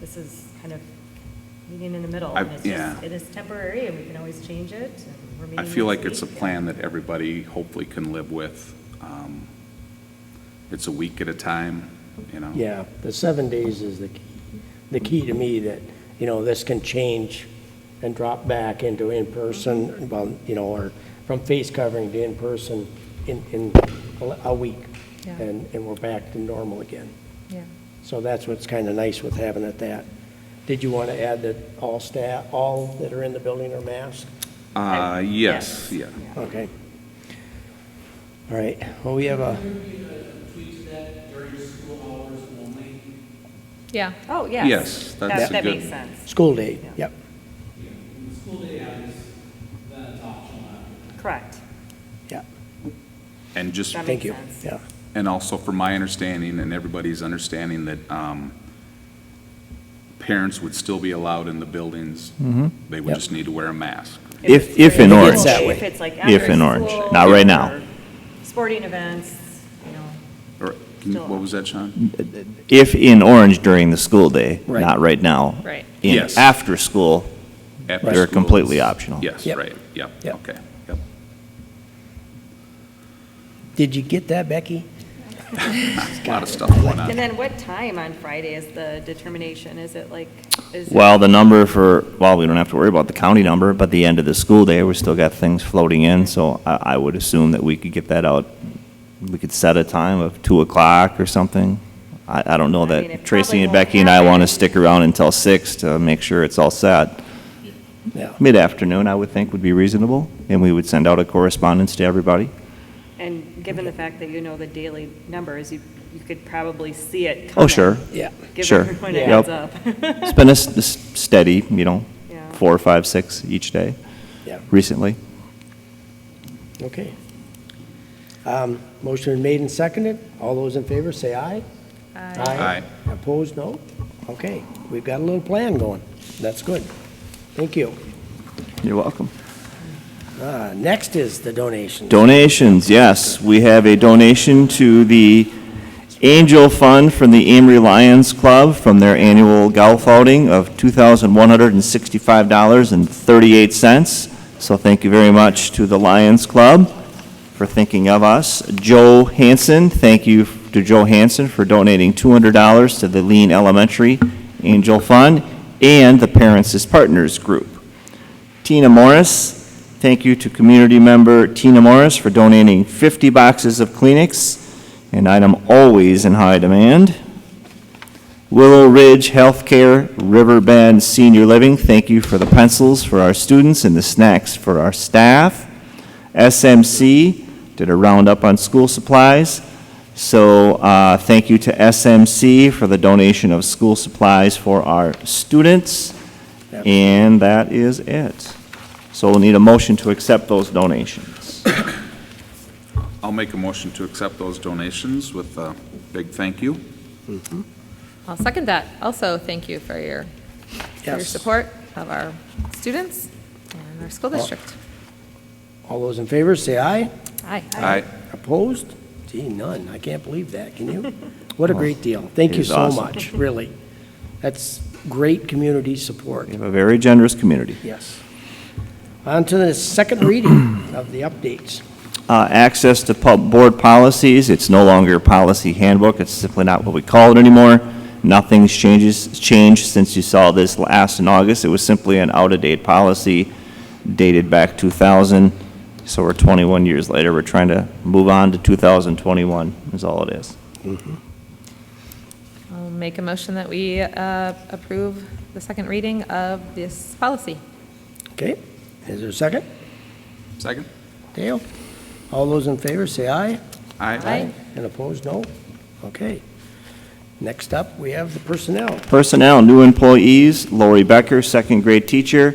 this is kind of meeting in the middle. I- and it's just- yeah. It is temporary, and we can always change it, and we're meeting I feel like next it's a week. plan that everybody hopefully can live with. Um, It's a week at a time, you know? Yeah, the seven days is the, key- the key to me that, you know, this can change and drop back into in-person, well, you know, or from face covering to in-person in, in a- a week. Yeah. And, and we're back to normal again. Yeah. So that's what's kind of nice with having it that. Did you want to add that all staff, all that are in the building are masked? Uh, yes, yeah. Okay. All right, well, we have a, tweaks that during school hours only. Yeah, Oh, yes. Yes, That- that's a That good- makes sense, school day, Yeah. yep. You know, when the school day hours, uh, then it's optional after that. correct. Yeah, And just, That makes thank you, sense. yeah. and also from my understanding and everybody's understanding that um, parents would still be allowed in the buildings. They would Mm-hmm. Yep. just need to wear a mask. If- it's if in during the day, orange. That way. If it's like If after in orange. school Not right now. or Sporting events, you know, Or, can you- what was that, Sean? If in orange during the school day, Right. not right now. Right. In Yes. after school, After school they're completely is- optional. Yes, Yep. right, yep, Yep. okay, yep. Did you get that, Becky? A lot of stuff going And on. then what time on Friday is the determination? Is it like, is it? Well, the number for, well, we don't have to worry about the county number, but the end of the school day, we still got things floating in, so I, I would assume that we could get that out. We could set a time of two o'clock or something. I, I don't know I mean, it that Tracy probably and won't Becky and I want happen. to stick around until six to make sure it's all set. Yeah. Mid-afternoon, I would think would be reasonable, and we would send out a correspondence to everybody. And given the fact that you know the daily numbers, you, you could probably see it coming. Oh, sure. Yeah. Give sure. everyone a Yeah. heads up. Yep. It's been a s- s- steady, you know, Yeah. four, five, six each day Yeah, recently. okay. Um, Motion made and seconded. All those in favor, say aye. Uh, Aye. Opposed, no? Okay, we've got a little plan going. That's good. Thank you. You're welcome. Uh, Next is the donation. Donations, yes. We have a donation to the Angel Fund from the Amory Lions Club from their annual golf outing of $2,165.38. So thank you very much to the Lions Club for thinking of us. Joe Hanson, thank you to Joe Hanson for donating $200 to the Lean Elementary Angel Fund and the Parents as Partners Group. Tina Morris, Thank you to community member Tina Morris for donating 50 boxes of Kleenex, an item always in high demand. Willow Ridge Healthcare Riverbend Senior Living, thank you for the pencils for our students and the snacks for our staff. SMC did a roundup on school supplies, so uh, thank you to SMC for the donation of school supplies for our students, and that is it. So we'll need a motion to accept those donations. I'll make a motion to accept those donations with a big thank you. Mm-hmm. I'll second that. Also, thank you for your, for your Yes. support of our students and our school district. All those in favor, say aye. Aye. Aye. Opposed? Gee, none. I can't believe that, can you? What a great deal. Thank it you is so awesome. much, really. That's great community support. We have a very generous community. Yes. On to the second reading of the updates. Uh, Access to pub- board policies, it's no longer a policy handbook, it's simply not what we call it anymore. Nothing's changes, changed since you saw this last in August. It was simply an out-of-date policy dated back 2000, so we're 21 years later. We're trying to move on to 2021 is all it is. I'll make a motion that we uh, approve the second reading of this policy. Okay, is there a second? Second? Dale? All those in favor, say aye. Aye. And opposed, no? Okay. Next up, we have the personnel. Personnel, new employees, Lori Becker, second grade teacher,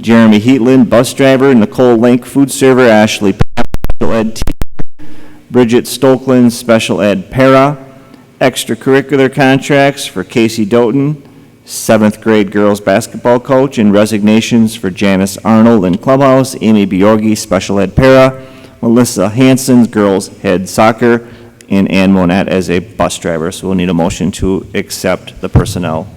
Jeremy Heatland, bus driver, Nicole Link, food server, Ashley Papp, special ed teacher, Bridget Stokland, special ed para, extracurricular contracts for Casey Doughton, seventh grade girls basketball coach, and resignations for Janice Arnold in clubhouse, Amy Biorgi, special ed para, Melissa Hanson, girls head soccer, and Ann Monat as a bus driver. So we'll need a motion to accept the personnel